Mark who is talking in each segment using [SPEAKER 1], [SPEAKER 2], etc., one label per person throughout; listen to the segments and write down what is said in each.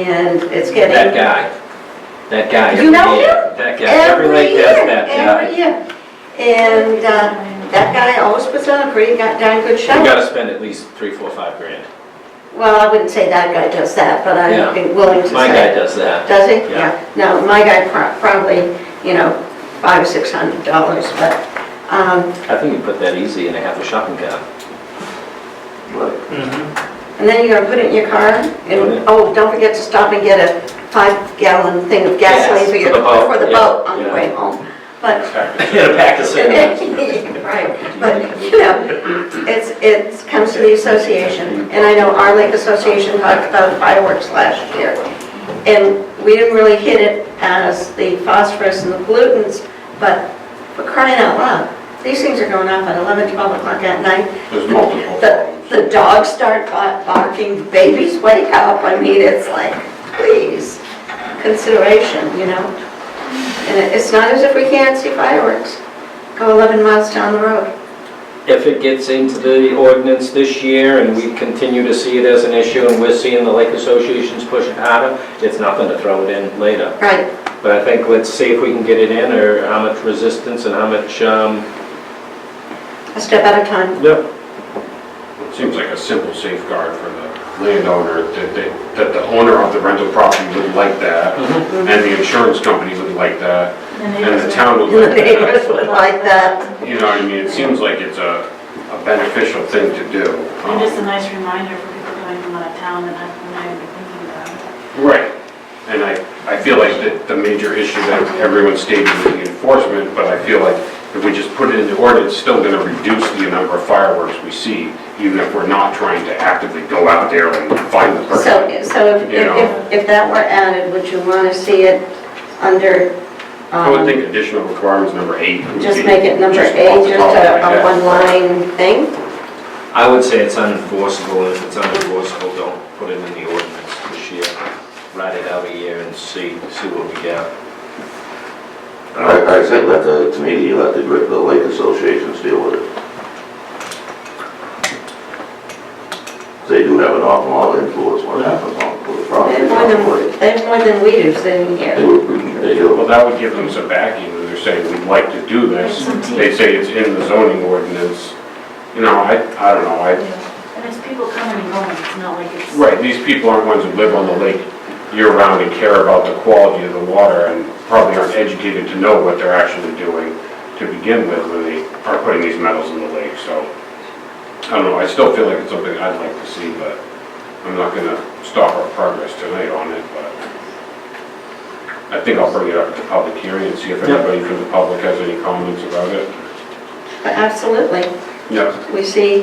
[SPEAKER 1] and it's getting.
[SPEAKER 2] That guy, that guy.
[SPEAKER 1] You know
[SPEAKER 2] every year. That guy, every lake has that
[SPEAKER 1] Every
[SPEAKER 2] guy.
[SPEAKER 1] year, and uh, that guy always puts on a pretty go- darn good
[SPEAKER 2] You
[SPEAKER 1] show.
[SPEAKER 2] gotta spend at least three, four, five grand.
[SPEAKER 1] Well, I wouldn't say that guy does that, but I'd be willing to say.
[SPEAKER 2] My guy does that.
[SPEAKER 1] Does he?
[SPEAKER 2] Yeah.
[SPEAKER 1] No, my guy pro- probably, you know, five or six hundred dollars, but, um,
[SPEAKER 2] I think you put that easy in a half a shopping cart.
[SPEAKER 1] and then you're gonna put it in your car, and, oh, don't forget to stop and get a five gallon thing of gasoline
[SPEAKER 2] Gas
[SPEAKER 1] for
[SPEAKER 2] for
[SPEAKER 1] your,
[SPEAKER 2] the boat,
[SPEAKER 1] for the
[SPEAKER 2] yeah,
[SPEAKER 1] boat on the
[SPEAKER 2] yeah.
[SPEAKER 1] way home. But
[SPEAKER 2] In a pack of cigarettes.
[SPEAKER 1] Right, but, you know, it's, it comes to the association, and I know our lake association talked about fireworks last year, and we didn't really hit it as the phosphorus and the pollutants, but for crying out loud, these things are going off at 11, 12 o'clock at night.
[SPEAKER 3] There's multiple
[SPEAKER 1] The,
[SPEAKER 3] problems.
[SPEAKER 1] the dogs start ba- barking, babies wake up, I mean, it's like, please, consideration, you know? And it- it's not as if we can't see fireworks, go 11 miles down the road.
[SPEAKER 2] If it gets into the ordinance this year and we continue to see it as an issue and we're seeing the lake associations push it harder, it's nothing to throw it in later.
[SPEAKER 1] Right,
[SPEAKER 2] But I think let's see if we can get it in or how much resistance and how much, um,
[SPEAKER 1] a step at a time.
[SPEAKER 2] yep,
[SPEAKER 3] It Seems like a simple safeguard for the landowner, that they, that the owner of the rental property would like that, and the insurance company would like that, and the town would
[SPEAKER 1] The
[SPEAKER 3] like that.
[SPEAKER 1] neighbors would like that.
[SPEAKER 3] You know what I mean? It seems like it's a a beneficial thing to do. Um,
[SPEAKER 4] And just a nice reminder for people going from out of town and not not even thinking about it.
[SPEAKER 3] Right. And I, I feel like that the major issue that everyone's stating is the enforcement, but I feel like if we just put it into ordinance, it's still gonna reduce the number of fireworks we see, even if we're not trying to actively go out there and find the person.
[SPEAKER 1] So, so if,
[SPEAKER 3] You know.
[SPEAKER 1] if, if that were added, would you want to see it under,
[SPEAKER 3] I would
[SPEAKER 1] um,
[SPEAKER 3] think additional requirements, number eight. would
[SPEAKER 1] just
[SPEAKER 3] be
[SPEAKER 1] make it number
[SPEAKER 3] just off
[SPEAKER 1] eight,
[SPEAKER 3] the
[SPEAKER 1] just
[SPEAKER 3] top of
[SPEAKER 1] a,
[SPEAKER 3] my
[SPEAKER 1] a
[SPEAKER 3] head.
[SPEAKER 1] one line thing?
[SPEAKER 2] I would say it's unenforceable, and if it's unenforceable, don't put it in the ordinance this year. Write it out a year and see, see what we get.
[SPEAKER 5] I, I say let the, to me, you let the, gr- the lake associations deal with it. They do have an awful lot of influence what happens on the
[SPEAKER 1] They
[SPEAKER 5] property.
[SPEAKER 1] have more than, they have more than we do sitting
[SPEAKER 5] They
[SPEAKER 1] here.
[SPEAKER 5] do, they do.
[SPEAKER 3] Well, that would give them some backing, when they're saying, we'd like to do this.
[SPEAKER 4] Some teeth.
[SPEAKER 3] They say it's in the zoning ordinance. You know, I, I don't know, I,
[SPEAKER 4] And it's people coming and going, it's not like it's.
[SPEAKER 3] Right, these people aren't ones who live on the lake year-round and care about the quality of the water and probably aren't educated to know what they're actually doing to begin with when they are putting these metals in the lake, so. I don't know, I still feel like it's something I'd like to see, but I'm not gonna stop our progress tonight on it, but I think I'll bring it up at the public hearing and see if
[SPEAKER 2] Yep.
[SPEAKER 3] anybody from the public has any comments about it.
[SPEAKER 1] But Absolutely,
[SPEAKER 3] Yeah,
[SPEAKER 1] we see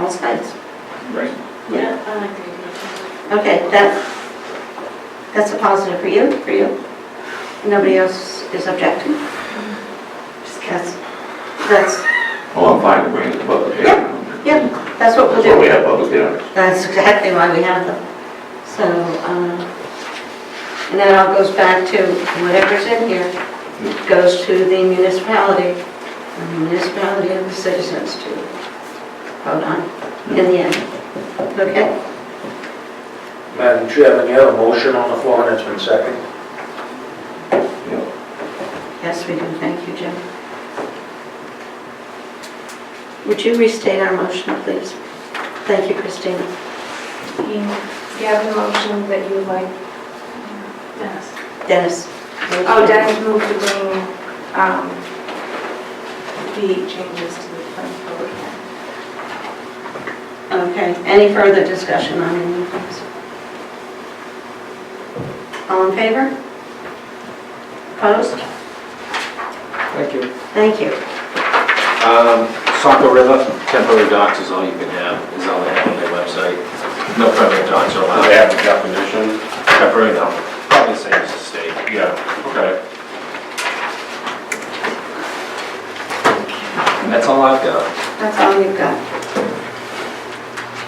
[SPEAKER 1] all sides.
[SPEAKER 3] right.
[SPEAKER 4] Yeah, I like the idea.
[SPEAKER 1] Okay, that, that's a positive for you, for you. Nobody else is objecting? Just cats. That's,
[SPEAKER 5] Well, I'm fine with bringing it to public hearing.
[SPEAKER 1] yeah, that's what we'll
[SPEAKER 5] That's why we
[SPEAKER 1] do.
[SPEAKER 5] have public hearings.
[SPEAKER 1] That's exactly why we have them. So, uh, and that all goes back to whatever's in here, goes to the municipality, the municipality and the citizens to vote on in the end. Okay?
[SPEAKER 6] Madam Chairman, you have a motion on the floor and it's been seconded.
[SPEAKER 5] Yeah.
[SPEAKER 1] Yes, we do. Thank you, Jim. Would you restate our motion, please? Thank you, Christina.
[SPEAKER 7] Gavin motion that you would like,
[SPEAKER 4] Dennis.
[SPEAKER 1] Dennis.
[SPEAKER 7] oh, Dennis moved to bring um, the changes to the plan forward.
[SPEAKER 1] Okay, any further discussion on any of these? All in favor? Opposed?
[SPEAKER 2] Thank you.
[SPEAKER 1] Thank you.
[SPEAKER 2] Um, Saco River, temporary docks is all you can have, is all they have on their website. No permanent docks are
[SPEAKER 3] They
[SPEAKER 2] allowed.
[SPEAKER 3] have the definition?
[SPEAKER 2] Temporary, no. Probably the same as the state.
[SPEAKER 3] Yeah, okay.
[SPEAKER 2] That's all I've got.
[SPEAKER 1] That's all you've got.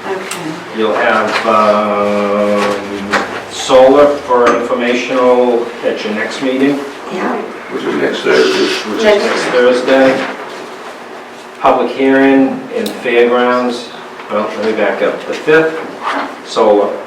[SPEAKER 1] Okay,
[SPEAKER 2] You'll have, um, solar for informational at your next meeting,
[SPEAKER 1] yeah,
[SPEAKER 5] Which is next Thursday.
[SPEAKER 2] which is next Thursday. Public hearing in fairgrounds, well, let me back up, the fifth, solar.